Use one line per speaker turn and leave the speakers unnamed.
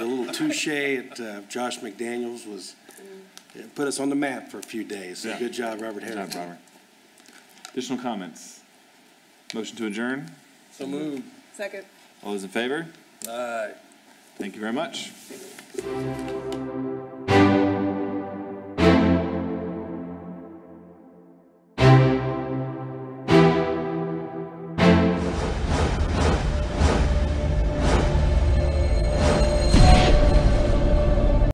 touche at uh, Josh McDaniels was, it put us on the map for a few days. So
Yeah.
Good job, Robert
Good job,
Harrington.
Robert. Additional comments? Motion to adjourn?
Second.
All those in favor? Aye. Thank you very much.